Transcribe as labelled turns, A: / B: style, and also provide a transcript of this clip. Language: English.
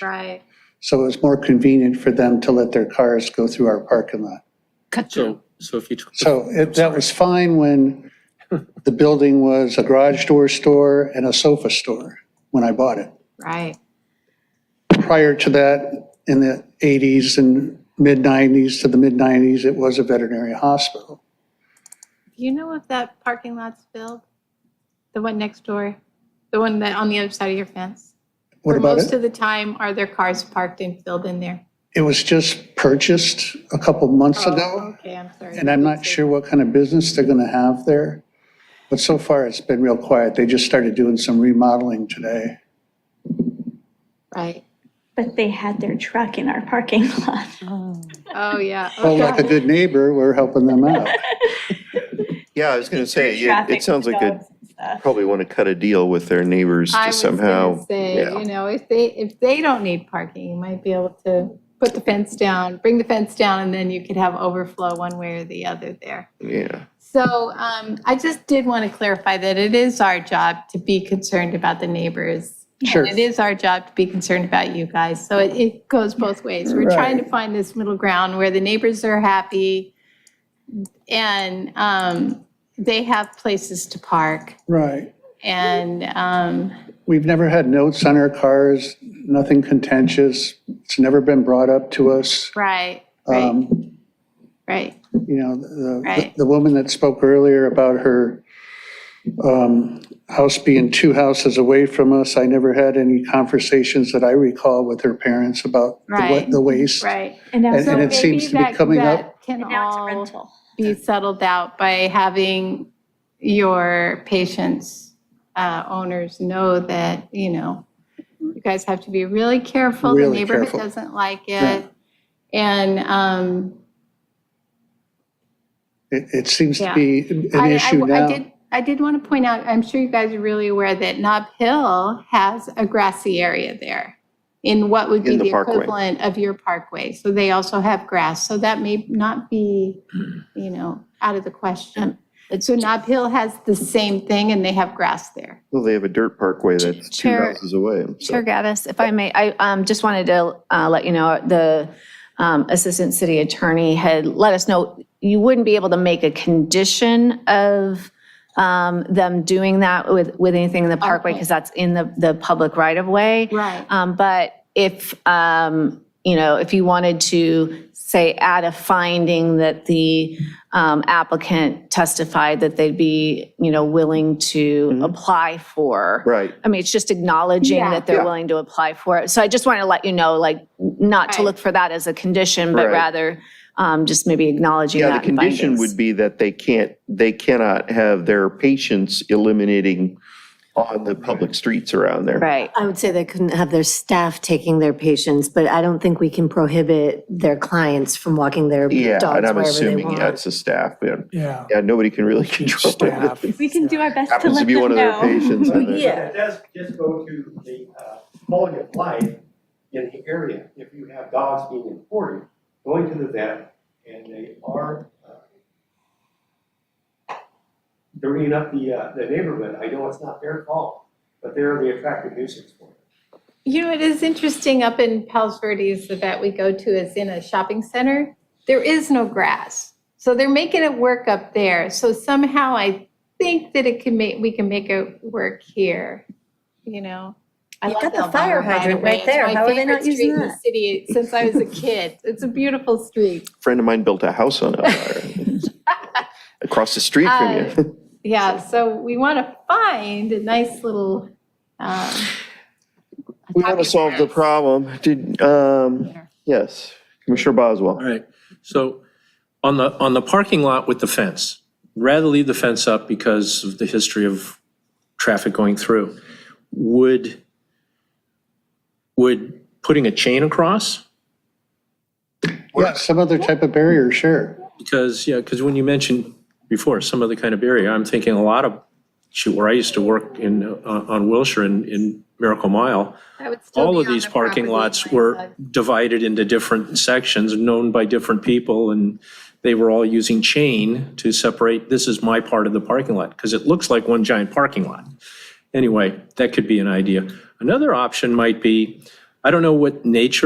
A: Right.
B: So it was more convenient for them to let their cars go through our parking lot.
A: Cut through.
C: So, so if you took. the-
B: So it, that was fine when the building was a garage door store and a sofa store when I bought it.
A: Right.
B: Prior to that, in the 80s and mid 90s to the mid 90s, it was a veterinary hospital.
A: Do you know if that parking lot's filled? The one next door? The one that on the other side of your fence?
B: What
A: Or
B: about
A: Most
B: it?
A: of the time, are their cars parked and filled in there?
B: It was just purchased a couple months
A: Oh,
B: ago,
A: Okay, I'm sorry.
B: and I'm not sure what kind of business they're going to have there. But so far, it's been real quiet. They just started doing some remodeling today.
A: Right.
D: But they had their truck in our parking lot.
A: Oh, yeah. Oh,
B: Well, like a
A: God.
B: good neighbor, we're helping them out.
E: Yeah, I was gonna say, yeah,
D: Traffic
E: it sounds like they
D: dogs and stuff.
E: probably want to cut a deal with their neighbors
A: I
E: to
A: was gonna
E: somehow.
A: say,
E: yeah.
A: you know, if they, if they don't need parking, you might be able to put the fence down, bring the fence down, and then you could have overflow one way or the other there.
E: Yeah,
A: So um, I just did want to clarify that it is our job to be concerned about the neighbors.
B: Sure.
A: It is our job to be concerned about you guys. So it, it goes both ways. We're trying to find this middle ground where the neighbors are happy and um, they have places to park.
B: Right.
A: And um,
B: We've never had notes on our cars, nothing contentious. It's never been brought up to us.
A: right, right,
B: Um,
A: right.
B: You know, the,
A: Right.
B: the woman that spoke earlier about her um, house being two houses away from us, I never had any conversations that I recall with her parents about the wa-
A: Right.
B: the waste.
A: Right.
D: And now,
A: So
B: And-
D: so-
B: and it
A: maybe
B: seems to be
A: that-
B: coming
A: that Can
D: and now it's a
A: all-
D: rental.
A: be settled out by having your patients, uh, owners know that, you know, you guys have to be really careful. The
B: Really
A: neighborhood
B: careful.
A: doesn't like
B: Yeah.
A: it. And, um,
B: It, it seems to
A: Yeah.
B: be an
A: I- I-
B: issue
A: I
B: now.
A: did, I did want to point out, I'm sure you guys are really aware that Nob Hill has a grassy area there in what would be
E: In the
A: the
E: parkway.
A: equivalent of your parkway. So they also have grass, so that may not be, you know, out of the question. So Nob Hill has the same thing and they have grass there.
E: well, they have a dirt parkway that's two
F: Chair-
E: houses away, so.
F: Chair Gaddis, if I may, I um, just wanted to uh, let you know, the um, Assistant City Attorney had let us know, you wouldn't be able to make a condition of um, them doing that with, with anything in the parkway,
A: Okay.
F: because that's in the, the public right-of-way.
A: Right.
F: Um, But if, um, you know, if you wanted to, say, add a finding that the um, applicant testified that they'd be, you know, willing to apply for.
E: Right,
F: I mean, it's just acknowledging
A: Yeah.
F: that they're
E: Yeah.
F: willing to apply for it. So I just want to let you know, like, not to
A: Right.
F: look for that as a condition, but
E: Right.
F: rather um, just maybe acknowledging
E: yeah,
F: that
E: the condition would be that they can't, they cannot have their patients eliminating on the public streets around there.
F: Right,
G: I would say they couldn't have their staff taking their patients, but I don't think we can prohibit their clients from walking their
E: Yeah,
G: dogs
E: and I'm
G: wherever they
E: assuming, yeah,
G: want.
E: it's a staff, yeah,
H: Yeah.
E: yeah, nobody can really control it.
H: Staff.
D: We can do our best to
E: Happens to
D: let
E: be
D: them
E: one of their
D: know.
E: patients. I think.
G: Yeah.
I: It does just go to the uh, quality of life in the area. If you have dogs being imported, going to the vet, and they are uh, dirtying up the, uh, the neighborhood, I know it's not their fault, but they're the attractive nuisance for it.
A: You know, it is interesting up in Palos Verdes, the vet we go to is in a shopping center. There is no grass. So they're making it work up there. So somehow I think that it can make, we can make it work here, you know? I
G: You've
A: love
G: got the
A: Elmira,
G: fire
A: by the
G: hydrant
A: way.
G: right
A: It's
G: there.
A: my
G: How are they
A: favorite
G: not using
A: street in the
G: that?
A: City since I was a kid. It's a beautiful street.
E: Friend of mine built a house on Elmira. Across the street from
A: Uh,
E: you.
A: Yeah, so we want to find a nice little, um,
E: We want to
A: Happy
E: solve the
A: parents.
E: problem. Did, um, yes, Commissioner
C: All
E: Boswell.
C: right, so on the, on the parking lot with the fence, rather leave the fence up because of the history of traffic going through. Would, would putting a chain across?
B: Yeah, some other type of barrier, sure.
C: Because, yeah, because when you mentioned before, some other kind of barrier, I'm thinking a lot of, shoot, where I used to work in, uh, on Wilshire in, in Miracle Mile,
A: that would still
C: all
A: be
C: of
A: on
C: these
A: the
C: parking
A: property
C: lots
A: line,
C: were
A: but-
C: divided into different sections, known by different people, and they were all using chain to separate, this is my part of the parking lot, because it looks like one giant parking lot. Anyway, that could be an idea. Another option might be I don't know what nature